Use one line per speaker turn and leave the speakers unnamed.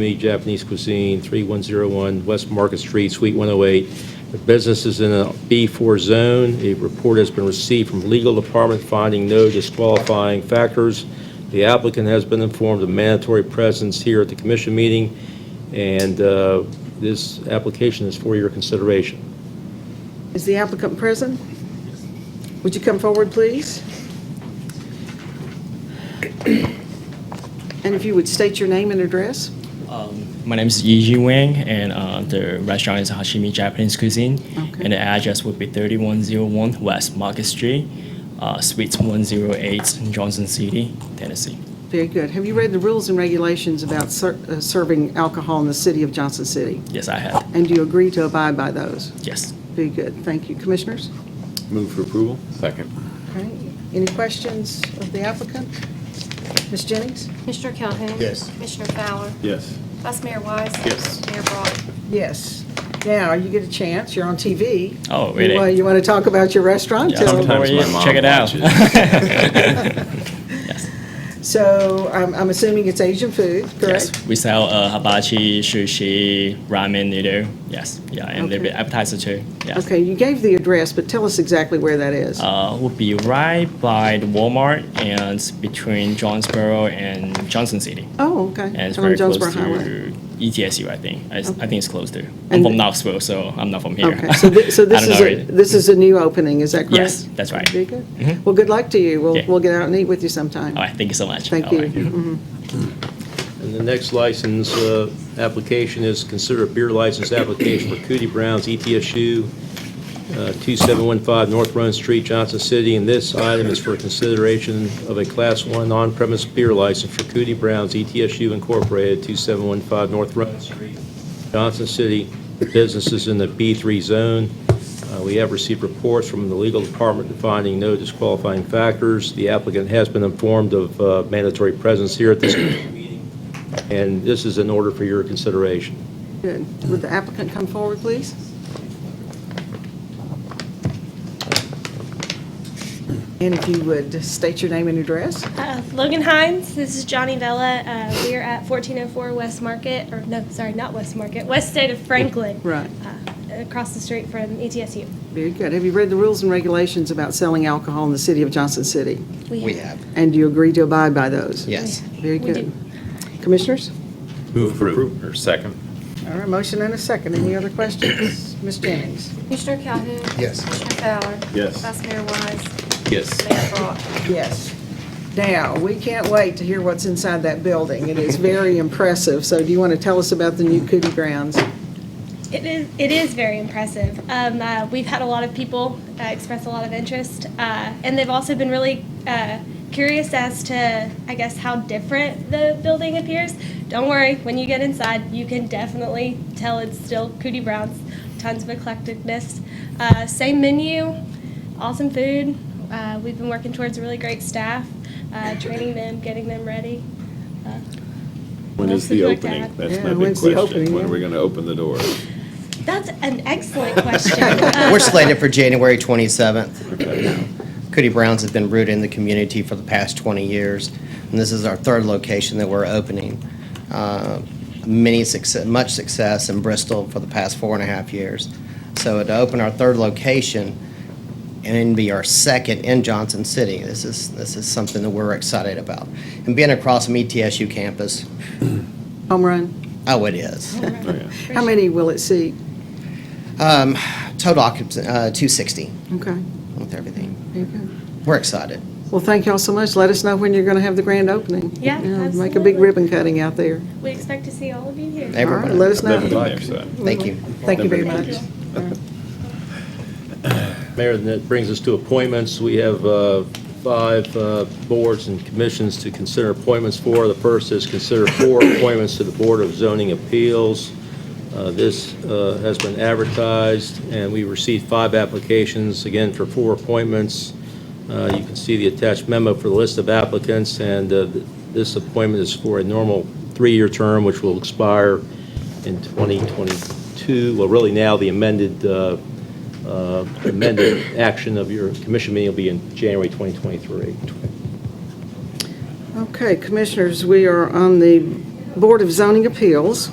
Me Japanese Cuisine, 3101 West Market Street, Suite 108. The business is in a B4 zone. A report has been received from legal department finding no disqualifying factors. The applicant has been informed of mandatory presence here at the commission meeting, and uh, this application is for your consideration.
Is the applicant present? Would you come forward, please? And if you would state your name and address?
Um, My name is Yi Ji Wang, and uh, the restaurant is Hashimi Japanese Cuisine.
Okay.
And the address would be 3101 West Market Street, uh, Suite 108, in Johnson City, Tennessee.
Very good. Have you read the rules and regulations about ser- uh, serving alcohol in the city of Johnson City?
Yes, I have.
And do you agree to abide by those?
Yes.
Very good. Thank you. Commissioners?
Move for approval? Second.
All right. Any questions of the applicant? Ms. Jennings?
Mr. Calhoun?
Yes.
Commissioner Fowler?
Yes.
Vice Mayor Wise?
Yes.
Mayor Brock?
Yes. Now, you get a chance. You're on TV.
Oh, really?
Well, You want to talk about your restaurant?
Yeah,
Tell-
I'm
Sometimes
over
my
here.
mom
Check it out.
So I'm, I'm assuming it's Asian food, correct?
Yes. We sell uh, hibachi, sushi, ramen noodle. Yes. Yeah, and a little
Okay.
bit appetizer too. Yes.
Okay, you gave the address, but tell us exactly where that is.
Uh, would be right by the Walmart and between Jonesboro and Johnson City.
Oh, okay.
And it's
On
very close
Jonesboro Highway.
to E ETSU, I think. I, I think it's close to.
And
I'm from
the-
Knoxville, so I'm not from here.
Okay, so thi- so
I
this
don't
is,
know
a
it.
this is a new opening, is that correct?
Yes, that's right. Mm-hmm.
Very good. Well, good luck to you. We'll,
Yeah.
we'll get out and eat with you sometime.
All right, thank you so much. Oh,
Thank
All right.
you. Mm-hmm.
And the next license uh, application is consider a beer license application for Cootie Brown's E ETSU, uh, 2715 North Run Street, Johnson City. And this item is for consideration of a Class 1 on-premise beer license for Cootie Brown's E ETSU Incorporated, 2715 North Run Street, Johnson City. The business is in the B3 zone. Uh, We have received reports from the legal department finding no disqualifying factors. The applicant has been informed of uh, mandatory presence here at this meeting, and this is in order for your consideration.
Good. Would the applicant come forward, please? And if you would state your name and address?
Uh, Logan Hines, this is Johnny Vella. Uh, we're at 1404 West Market, or no, sorry, not West Market, West State of Franklin,
Right.
uh, across the street from E ETSU.
Very good. Have you read the rules and regulations about selling alcohol in the city of Johnson City?
We have.
And do you agree to abide by those?
Yes.
Very
We
good.
do.
Commissioners?
Move for approval? Or second?
All right, motion and a second. Any other questions? Ms. Jennings?
Commissioner Calhoun?
Yes.
Commissioner Fowler?
Yes.
Vice Mayor Wise?
Yes.
Mayor Brock?
Yes. Now, we can't wait to hear what's inside that building. It is very impressive. So do you want to tell us about the new Cootie Grounds?
It is, it is very impressive. Um, uh, we've had a lot of people uh, express a lot of interest, uh, and they've also been really uh, curious as to, I guess, how different the building appears. Don't worry, when you get inside, you can definitely tell it's still Cootie Brown's. Tons of eclecticness. Uh, same menu, awesome food. Uh, we've been working towards a really great staff, uh, training them, getting them ready. Uh,
When is the
Mostly like
opening?
that.
That's
Yeah,
my big
when's the opening,
question. When
yeah.
are we going to open the door?
that's an excellent question. Uh,
We're slated for January 27th. Cootie Browns has been rooted in the community for the past 20 years, and this is our third location that we're opening. Uh, Many success, much success in Bristol for the past four and a half years. So to open our third location and then be our second in Johnson City, this is, this is something that we're excited about. And being across from E ETSU campus,
Home run?
oh, it is.
Oh, yeah.
How many will it seat?
Um, Total occupancy, uh, 260
Okay,
with everything.
very good.
We're excited.
Well, thank y'all so much. Let us know when you're going to have the grand opening.
Yeah,
Make a big
absolutely.
ribbon cutting out there.
we expect to see all of you here.
All right,
Everybody.
Let us
I've never
know.
been there, so.
Thank you.
Thank you very
Never.
much.
Mayor, and that brings us to appointments. We have uh, five uh, boards and commissions to consider appointments for. The first is consider four appointments to the Board of Zoning Appeals. Uh, This uh, has been advertised, and we received five applications, again, for four appointments. Uh, You can see the attached memo for the list of applicants, and uh, th- this appointment is for a normal three-year term, which will expire in 2022, well, really now, the amended uh, uh, amended action of your commission meeting will be in January 2023.
Okay, Commissioners, we are on the Board of Zoning Appeals